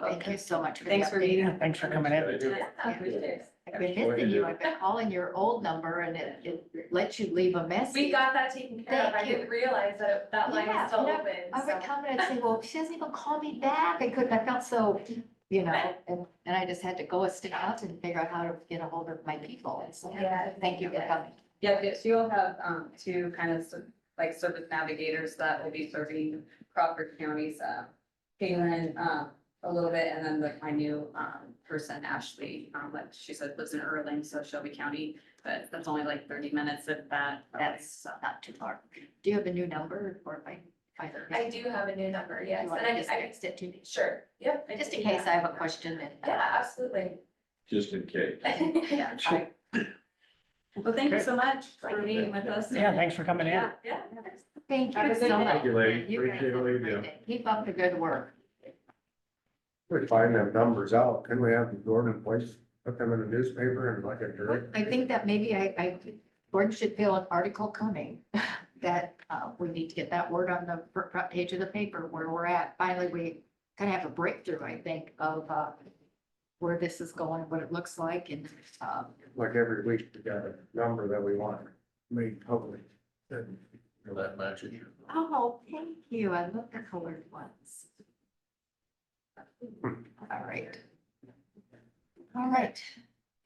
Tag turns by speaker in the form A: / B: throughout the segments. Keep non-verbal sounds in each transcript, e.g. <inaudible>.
A: Thank you so much for the
B: Thanks for
A: update.
B: meeting. us.
C: Thanks for coming in.
A: I've been missing you. I've been calling your old number and it, it lets you leave a message.
D: We got that taken care of. I
A: Thank you.
D: didn't realize that that line
A: Yeah,
D: is still
A: no,
D: open,
A: I
D: so.
A: would come in and say, well, she doesn't even call me back. I couldn't, I felt so, you know, and, and I just had to go a step out and figure out how to get a hold of my people. And so,
D: Yeah.
A: thank you for coming.
B: Yeah, yeah, she will have um two kind of ser- like service navigators that will be serving Crawford County's uh. Kaylin um a little bit and then like my new um person Ashley, um like she said lives in Erling, so Shelby County. But that's only like thirty minutes of that. uh,
A: That's not too far. Do you have a new number or if I find it?
D: I do have a new number, yes,
A: You
D: and
A: want to
D: I,
A: just
D: I,
A: text it to me?
D: sure, yep. I
A: Just
D: can
A: in
D: do
A: case I
D: that.
A: have a question uh, and.
D: Yeah, absolutely.
E: just in case.
B: <laughs> Yeah, I- Well, thank you so much for meeting with us.
C: Yeah, thanks for coming in.
B: Yeah, yeah.
A: Thank
B: Have a
A: you so
B: good day.
A: much.
E: Thank you, lady.
A: guys
E: Appreciate
A: have a
E: all you
A: great
E: do.
A: day. Keep up the good work.
E: We find them numbers out, couldn't we have the Gordon place, put them in the newspaper and like a direct?
A: I think that maybe I, I, Gordon should feel an article coming <laughs> that, uh, we need to get that word on the fr- front page of the paper where we're at. Finally, we kind of have a breakthrough, I think, of, uh, where this is going, what it looks like and, um,
E: Like every week, we got a number that we want made public. That matches.
A: oh, thank you. I love the colored ones. All right. All right.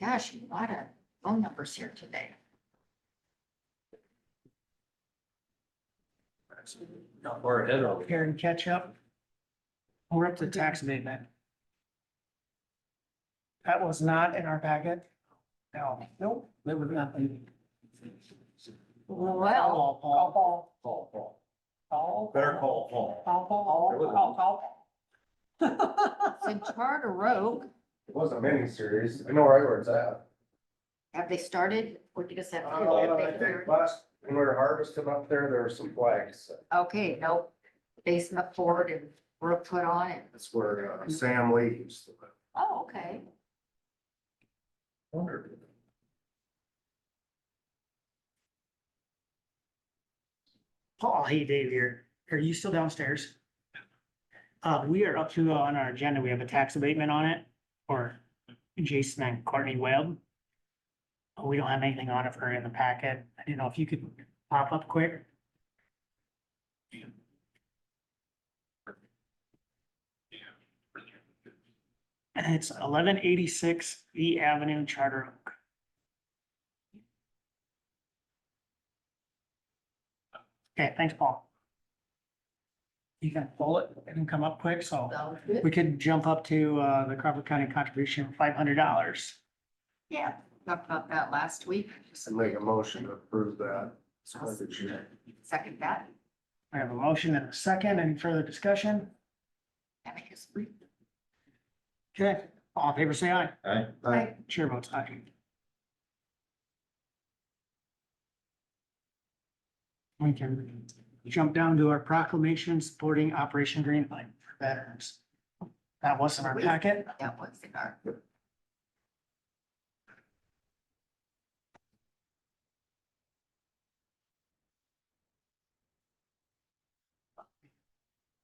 A: Gosh, a lot of phone numbers here today.
E: Not far ahead of it.
C: Here and catch up. We're up to tax abatement. That was not in our packet. No, nope, there was nothing.
A: Well,
C: Call, Paul.
E: Paul, Paul.
C: Call.
E: Better call Paul.
C: Call, Paul. Call, call. <laughs>
A: so Charter Road,
E: It was a mini series. I know right where it's at.
A: Have they started? What did you say?
E: Uh, I think last, when we were harvesting up there, there were some flags.
A: Okay, no basement poured and roof put on it.
E: That's where uh, Sam Lee used to live.
A: Oh, okay.
E: Wonder.
C: Paul, hey Dave here. Are you still downstairs? Uh, we are up to, uh, on our agenda, we have a tax abatement on it for Jason and Courtney Webb. Uh, We don't have anything on it for her in the packet. I didn't know if you could pop up quick. And it's eleven eighty-six V Avenue Charter Oak. Okay, thanks, Paul. You can pull it and come up quick, so
A: So,
C: we could jump up to uh, the Crawford County contribution of five hundred dollars.
A: yeah, talked about that last week.
E: And make a motion to approve that.
A: Second that.
C: I have a motion and a second. Any further discussion?
A: Amicus brief.
C: Okay, all in favor, say aye.
E: Aye.
C: Chair votes aye. We can jump down to our proclamation supporting Operation Green Line for veterans. That wasn't our packet.
A: That was in our.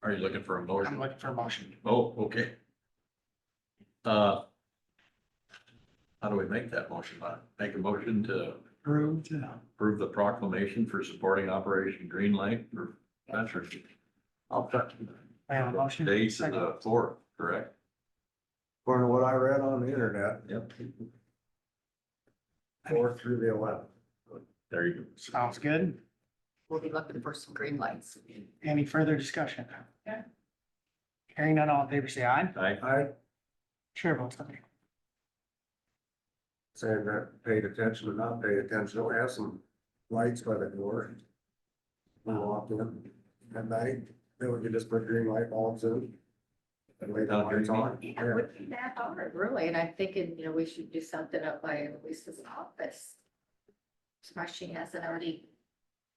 F: Are you looking for a
C: I'm
F: motion?
C: looking for a motion.
F: Oh, okay. Uh. How do we make that motion? Uh, Make a motion to
C: Approved. uh,
F: approve the proclamation for supporting Operation Green Light for veterans. I'll touch.
C: I have a motion.
F: Dates of
C: Second.
F: the fourth, correct?
E: According to what I read on the internet,
F: Yep.
E: four through the eleven.
F: There you go.
C: Sounds good.
A: We'll be looking for some green lights.
C: Any further discussion? Hearing none, all in favor, say aye.
F: I,
E: I
C: Chair votes aye.
E: said that paid attention or not paid attention, we have some lights by the door. We walked in at night, then we could just put green light bulbs in. And leave the lights on.
A: Yeah, it would be that hard, really. And I'm thinking, you know, we should do something up by Lisa's office. Smart, she hasn't already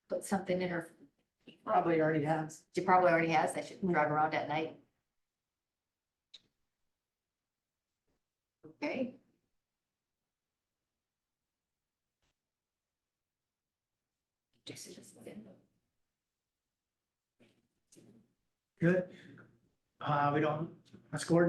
A: put something in her. Probably already has. She probably already has. I should drive around at night. Okay. Jason just did.
C: Good. Uh, we don't, let's go